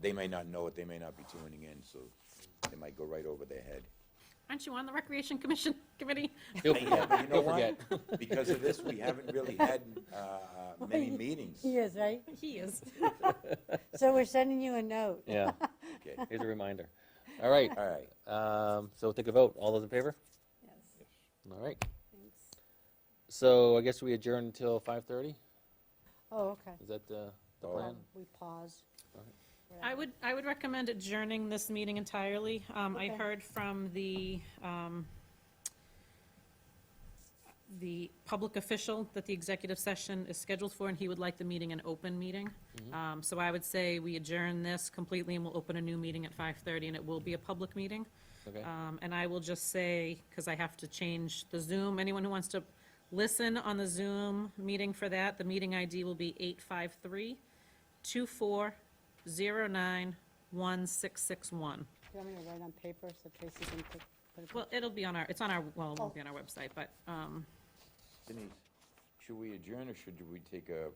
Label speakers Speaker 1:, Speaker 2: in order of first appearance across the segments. Speaker 1: they may not know it, they may not be tuning in, so it might go right over their head.
Speaker 2: Aren't you on the Recreation Commission Committee?
Speaker 3: He'll
Speaker 1: Yeah,
Speaker 3: forget,
Speaker 1: but you know
Speaker 3: he'll
Speaker 1: what?
Speaker 3: forget.
Speaker 1: Because of this, we haven't really had uh, many meetings.
Speaker 4: He is, right?
Speaker 2: He is.
Speaker 4: So we're sending you a note.
Speaker 3: Yeah,
Speaker 1: Okay,
Speaker 3: here's a reminder. All right,
Speaker 1: all right.
Speaker 3: um, so we'll take a vote. All those in favor?
Speaker 4: Yes,
Speaker 3: All right.
Speaker 4: thanks.
Speaker 3: So I guess we adjourn until 5:30?
Speaker 4: Oh, okay.
Speaker 3: Is that uh, the
Speaker 1: Oh.
Speaker 3: plan?
Speaker 4: Um, We pause.
Speaker 3: Alright.
Speaker 2: I would, I would recommend adjourning this meeting entirely. Um, I
Speaker 4: Okay.
Speaker 2: heard from the, um, the public official that the executive session is scheduled for, and he would like the meeting an open meeting. Um, so I would say we adjourn this completely, and we'll open a new meeting at 5:30, and it will be a public meeting.
Speaker 3: Okay,
Speaker 2: Um, And I will just say, because I have to change the Zoom, anyone who wants to listen on the Zoom meeting for that, the meeting ID will be 853-2409-1661.
Speaker 4: Do you want me to write on paper so Tracy can put- put it?
Speaker 2: Well, it'll be on our, it's on our, well, it won't be on our website, but, um,
Speaker 1: Denise, should we adjourn or should we take a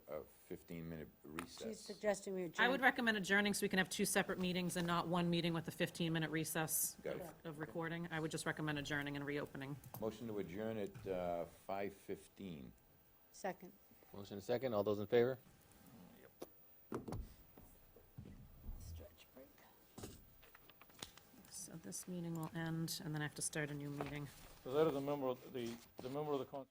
Speaker 1: 15-minute
Speaker 4: She's
Speaker 1: recess?
Speaker 4: suggesting we adjourn.
Speaker 2: I would recommend adjourning so we can have two separate meetings and not one meeting with a 15-minute recess
Speaker 1: Got it.
Speaker 2: of recording. I would just recommend adjourning and reopening.
Speaker 1: Motion to adjourn at uh, 5:15.
Speaker 4: Second.
Speaker 3: motion and second. All those in favor?
Speaker 4: Stretch break.
Speaker 2: So this meeting will end, and then I have to start a new meeting.
Speaker 5: Because that is a member of the, the member of the con-